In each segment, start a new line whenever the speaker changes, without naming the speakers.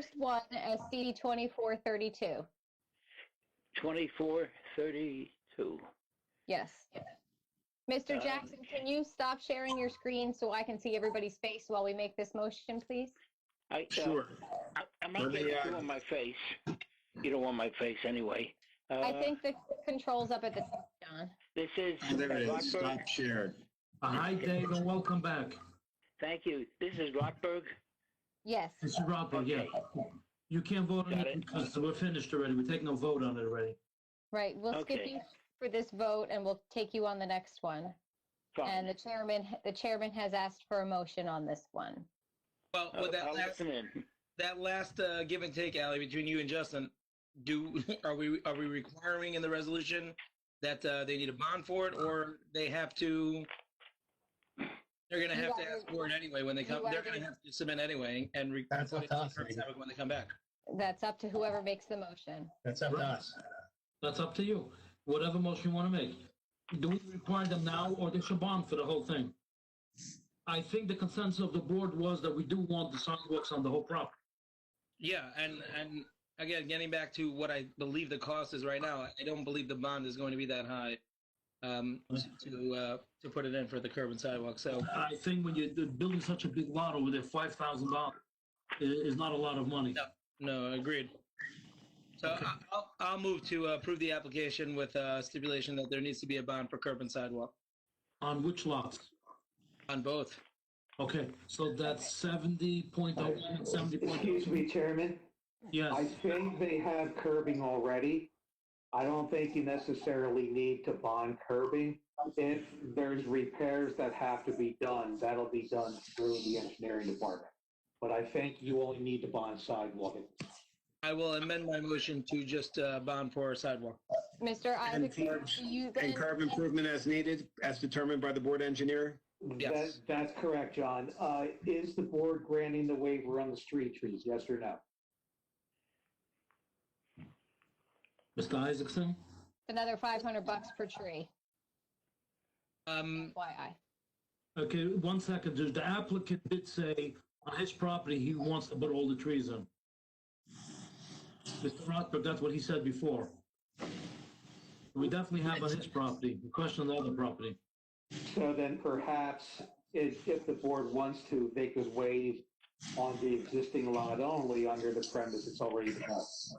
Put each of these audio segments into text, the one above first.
first one as CD 2432.
2432.
Yes. Mr.
Um,
Jackson, can you stop sharing your screen so I can see everybody's face while we make this motion, please?
I, uh,
Sure.
I- I'm not
Let me,
going to
uh,
do on my face. You don't want my face anyway. Uh,
I think the controls up at the top, John.
This is.
There it is.
Rockburg.
Stop shared.
Uh, Hi, Dave, and welcome back.
Thank you. This is Rockberg.
Yes.
Mr. Rothberg, yeah. You can't vote on
Got
it
it.
because we're finished already. We're taking a vote on it already.
Right. We'll skip
Okay.
you for this vote and we'll take you on the next one. And
Fine.
the chairman, the chairman has asked for a motion on this one.
Well,
Uh,
with that
I'll
last,
listen in.
that last uh, give and take, Ally, between you and Justin, do, are we, are we requiring in the resolution that uh, they need a bond for it, or they have to, they're gonna
You
have to
either-
ask for it anyway when they
you
come, they're
either-
gonna have to submit anyway and. re-
That's
put
up
it
to
in
us,
terms
maybe.
of it When they come back.
That's up to whoever makes the motion.
That's up to
Right.
us.
That's up to you. Whatever motion you want to make. Do we require them now or they should bond for the whole thing? I think the consensus of the board was that we do want the sidewalks on the whole property.
Yeah, and, and again, getting back to what I believe the cost is right now, I don't believe the bond is going to be that high um, to, uh, to put it in for the curb and sidewalk, so.
I think when you're building such a big lot over there, five thousand dollars is not a lot of money.
No, agreed. So I- I'll, I'll move to uh, approve the application with uh, stipulation that there needs to be a bond for curb and sidewalk
On which lots?
on both.
Okay, so that's seventy point oh one and seventy point
Excuse
two.
me, Chairman. I
Yes,
think they have curbing already. I don't think you necessarily need to bond curbing. If there's repairs that have to be done, that'll be done through the engineering department. But I think you only need to bond sidewalk.
I will amend my motion to just uh, bond for sidewalk.
Mr.
And
Isaacson,
curbs-
do you then?
And curb improvement as needed, as determined by the board engineer?
Yes.
That- That's correct, John. Uh, Is the board granting the waiver on the street trees, yes or no?
Mr. Isaacson?
Another 500 bucks per tree,
Um,
FYI.
Okay, one second, the- the applicant did say on his property, he wants to put all the trees in. Mr. Rothberg, that's what he said before. We definitely have on his property, the question on the other property.
So then perhaps if, if the board wants to, they could waive on the existing lot only under the premise it's already developed.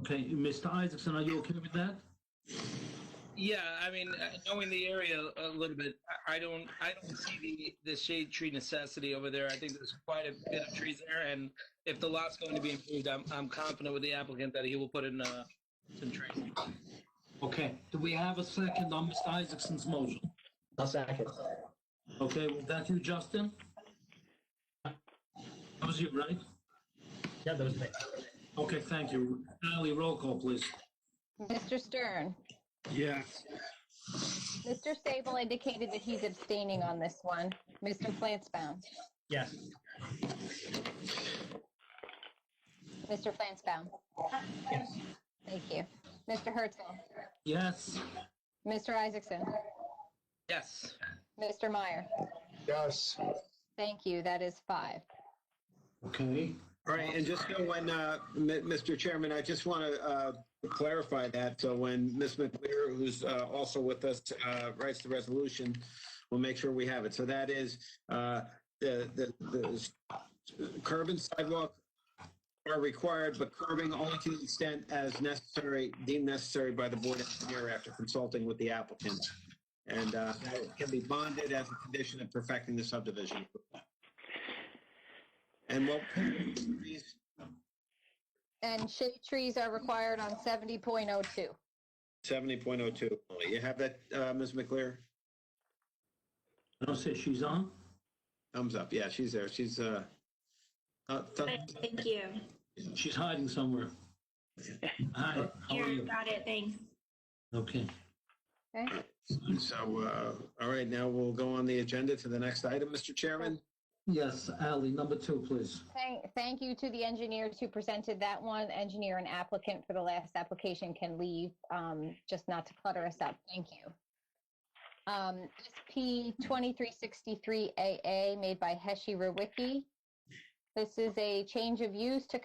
Okay, Mr. Isaacson, are you okay with that?
yeah, I mean, uh, knowing the area a little bit, I, I don't, I don't see the, the shade tree necessity over there. I think there's quite a bit of trees there, and if the lot's going to be improved, I'm, I'm confident with the applicant that he will put in uh, some trees.
Okay, do we have a second on Mr. Isaacson's motion?
I'll second.
Okay, was that you, Justin? That was you, right?
Yeah, that was me.
Okay, thank you. Ally, roll call, please.
Mr. Stern,
Yes.
Mr. Sable indicated that he's abstaining on this one. Mr. Flansbaum,
Yes.
Mr. Flansbaum. Thank you. Mr. Herzl,
Yes,
Mr. Isaacson,
Yes.
Mr. Meyer.
Yes.
Thank you. That is five.
okay.
All right, and just so when, uh, M- Mr. Chairman, I just want to uh, clarify that, so when Ms. McClear, who's uh, also with us, uh, writes the resolution, we'll make sure we have it. So that is uh, the the- the curb and sidewalk are required, but curbing only to the extent as necessary, deemed necessary by the board engineer after consulting with the applicant. And uh, that can be bonded as a condition of perfecting the subdivision. And what,
And shade trees are required on 70.02.
Seventy point oh two. You have that, uh, Ms. McClear?
I don't see she's on.
Thumbs up. Yeah, she's there. She's, uh, uh, th-
Thank you.
She's hiding somewhere. Hi, how are
Here,
you?
got it, thanks.
Okay.
Okay.
so, uh, all right, now we'll go on the agenda to the next item, Mr. Chairman.
Yes, Ally, number two, please.
Thank, thank you to the engineers who presented that one. Engineer and applicant for the last application can leave, um, just not to clutter us up. Thank you. Um, SP 2363AA made by Heshi Rewicki. This is a change of use to